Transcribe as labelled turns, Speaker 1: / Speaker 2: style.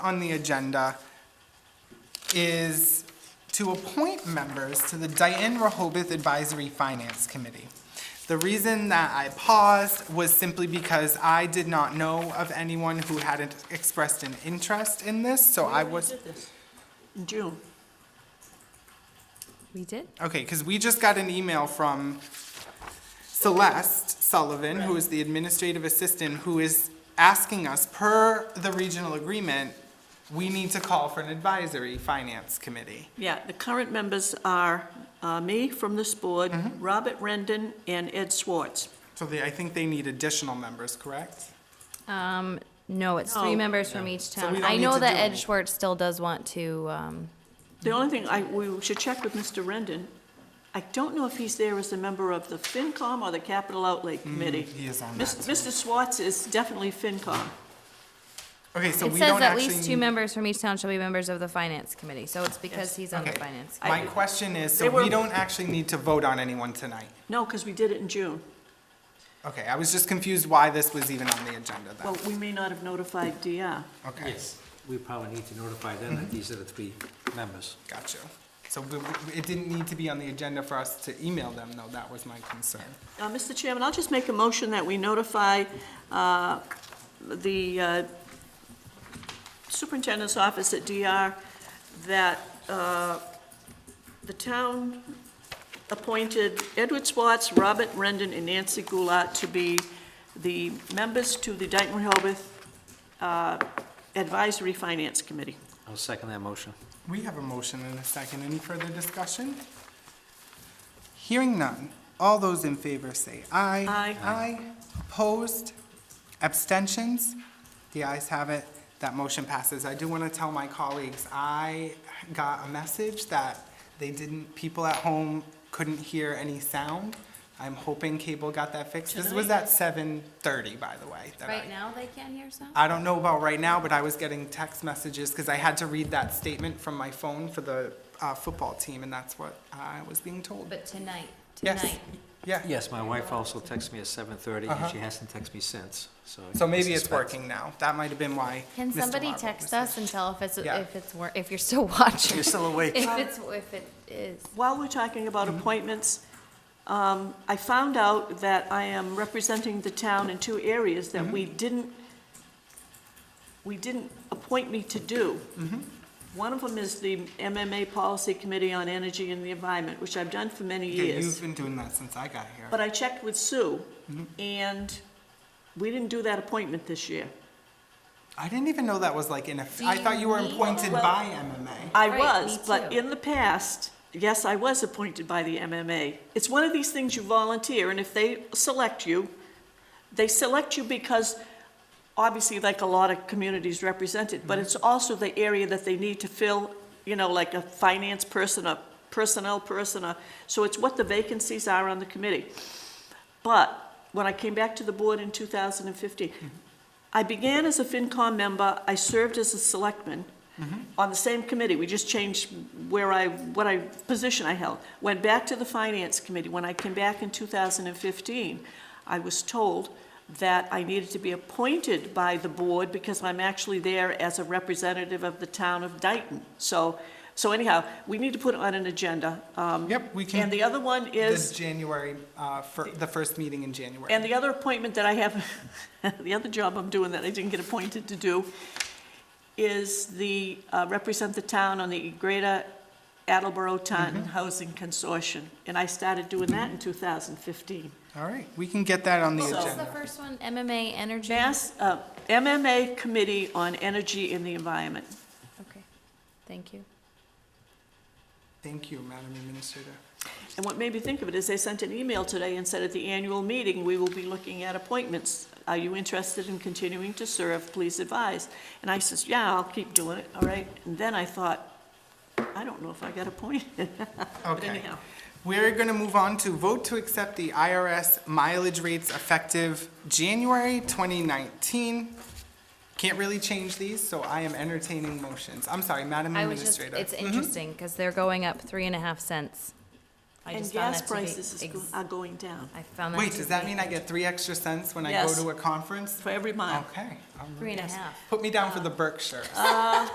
Speaker 1: on the agenda is to appoint members to the Dayton Rehoboth Advisory Finance Committee. The reason that I paused was simply because I did not know of anyone who hadn't expressed an interest in this, so I was,
Speaker 2: June.
Speaker 3: We did?
Speaker 1: okay, because we just got an email from Celeste Sullivan, who is the administrative assistant, who is asking us, per the regional agreement, we need to call for an advisory finance committee.
Speaker 2: Yeah, the current members are uh, me from this board, Robert Rendon, and Ed Swartz.
Speaker 1: So they, I think they need additional members, correct?
Speaker 3: Um, no, it's
Speaker 2: No.
Speaker 3: three members from each
Speaker 1: we
Speaker 3: town.
Speaker 1: don't
Speaker 3: I
Speaker 1: need
Speaker 3: know
Speaker 1: to
Speaker 3: that
Speaker 1: do
Speaker 3: Ed
Speaker 1: it.
Speaker 3: Schwartz still does want to, um,
Speaker 2: The only thing, I, we should check with Mr. Rendon. I don't know if he's there as a member of the FinCom or the Capital Outlay Committee.
Speaker 1: he is on
Speaker 2: Mis-
Speaker 1: that
Speaker 2: Mr. Swartz is definitely FinCom.
Speaker 1: Okay, so
Speaker 3: it
Speaker 1: we
Speaker 3: says
Speaker 1: don't
Speaker 3: at
Speaker 1: actually.
Speaker 3: least two members from each town shall be members of the finance committee, so it's because he's on the
Speaker 1: Okay.
Speaker 3: finance.
Speaker 2: I-
Speaker 1: My question is, so
Speaker 2: They were-
Speaker 1: we don't actually need to vote on anyone tonight?
Speaker 2: No, because we did it in June.
Speaker 1: Okay, I was just confused why this was even on the agenda then.
Speaker 2: Well, we may not have notified DR.
Speaker 1: Okay,
Speaker 4: Yes, Mm-hmm. we probably need to notify them that these are the three members.
Speaker 1: got you. So we- we- it didn't need to be on the agenda for us to email them, though, that was my concern.
Speaker 2: Uh, Mr. Chairman, I'll just make a motion that we notify uh, the uh, superintendent's office at DR that uh, the town appointed Edward Swartz, Robert Rendon, and Nancy Goulart to be the members to the Dayton Rehoboth uh, Advisory Finance Committee.
Speaker 4: I'll second that motion.
Speaker 1: We have a motion and a second. Any further discussion? Hearing none. All those in favor say aye.
Speaker 2: Aye.
Speaker 1: Aye. Opposed? Abstentions? The ayes have it. That motion passes. I do want to tell my colleagues, I got a message that they didn't, people at home couldn't hear any sound. I'm hoping cable got that fixed. This was at 7:30, by the way. that I-
Speaker 3: Right now, they can't hear sound?
Speaker 1: I don't know about right now, but I was getting text messages because I had to read that statement from my phone for the uh, football team, and that's what I was being told.
Speaker 3: But tonight,
Speaker 1: Yes.
Speaker 3: tonight.
Speaker 1: Yeah,
Speaker 4: Yes, my wife also texted me at seven thirty, and she hasn't texted me since, Uh-huh. so.
Speaker 1: so maybe it's
Speaker 4: suspect-
Speaker 1: working now. That might have been why.
Speaker 3: Can
Speaker 1: Mr.
Speaker 3: somebody
Speaker 1: Marble was-
Speaker 3: text us and tell if it's,
Speaker 1: Yeah.
Speaker 3: if it's, wor- if you're still watching?
Speaker 4: You're still awake.
Speaker 3: If it's, if it is.
Speaker 2: While we're talking about appointments, um, I found out that I am representing the town in two areas that we didn't, we didn't appoint me to do. One of them is the MMA Policy Committee on Energy and the Environment, which I've done for many
Speaker 1: Yeah,
Speaker 2: years.
Speaker 1: you've been doing that since I got here.
Speaker 2: But I checked with Sue, and we didn't do that appointment this year.
Speaker 1: I didn't even know that was like in a,
Speaker 3: Do
Speaker 1: I thought
Speaker 3: you
Speaker 1: you were
Speaker 3: need-
Speaker 1: appointed
Speaker 3: Well-
Speaker 1: by MMA.
Speaker 2: I
Speaker 3: Right,
Speaker 2: was,
Speaker 3: me
Speaker 2: but
Speaker 3: too.
Speaker 2: in the past, yes, I was appointed by the MMA. It's one of these things you volunteer, and if they select you, they select you because, obviously, like a lot of communities represented,
Speaker 3: Mm-hmm.
Speaker 2: but it's also the area that they need to fill, you know, like a finance person, a personnel person, a, so it's what the vacancies are on the committee. But when I came back to the board in 2015, I began as a FinCom member, I served as a selectman
Speaker 1: Mm-hmm.
Speaker 2: on the same committee, we just changed where I, what I, position I held. Went back to the Finance Committee, when I came back in 2015, I was told that I needed to be appointed by the board because I'm actually there as a representative of the town of Dayton. So, so anyhow, we need to put it on an agenda. Um,
Speaker 1: Yep, we
Speaker 2: And
Speaker 1: can,
Speaker 2: the other one is.
Speaker 1: this January, uh, fir- the first meeting in January.
Speaker 2: And the other appointment that I have, the other job I'm doing that I didn't get appointed to do is the, uh, represent the town on the Greater Attleboro Taunton Housing Consortium. And I started doing that in 2015.
Speaker 1: All right, we can get that on the
Speaker 3: What was the
Speaker 1: agenda.
Speaker 3: first one? MMA Energy?
Speaker 2: Mass, uh, MMA Committee on Energy and the Environment.
Speaker 3: Okay, thank you.
Speaker 1: Thank you, Madam Administrator.
Speaker 2: And what made me think of it is they sent an email today and said at the annual meeting, we will be looking at appointments. Are you interested in continuing to serve? Please advise. And I says, yeah, I'll keep doing it, all right? And then I thought, I don't know if I got appointed. But
Speaker 1: Okay.
Speaker 2: anyhow,
Speaker 1: We're going to move on to vote to accept the IRS mileage rates effective January 2019. Can't really change these, so I am entertaining motions. I'm sorry, Madam
Speaker 3: I was just,
Speaker 1: Administrator. Mm-hmm.
Speaker 3: it's interesting, because they're going up three and a half cents I
Speaker 2: And
Speaker 3: just found
Speaker 2: gas
Speaker 3: that to be
Speaker 2: prices is
Speaker 3: ex-
Speaker 2: go- are going down
Speaker 3: I found that
Speaker 1: Wait,
Speaker 3: to
Speaker 1: does that
Speaker 3: be
Speaker 1: mean I get three extra cents when I go
Speaker 2: Yes.
Speaker 1: to a conference?
Speaker 2: for every mile.
Speaker 1: Okay. all right.
Speaker 3: Three and a half.
Speaker 1: Put me down for the Berkshire.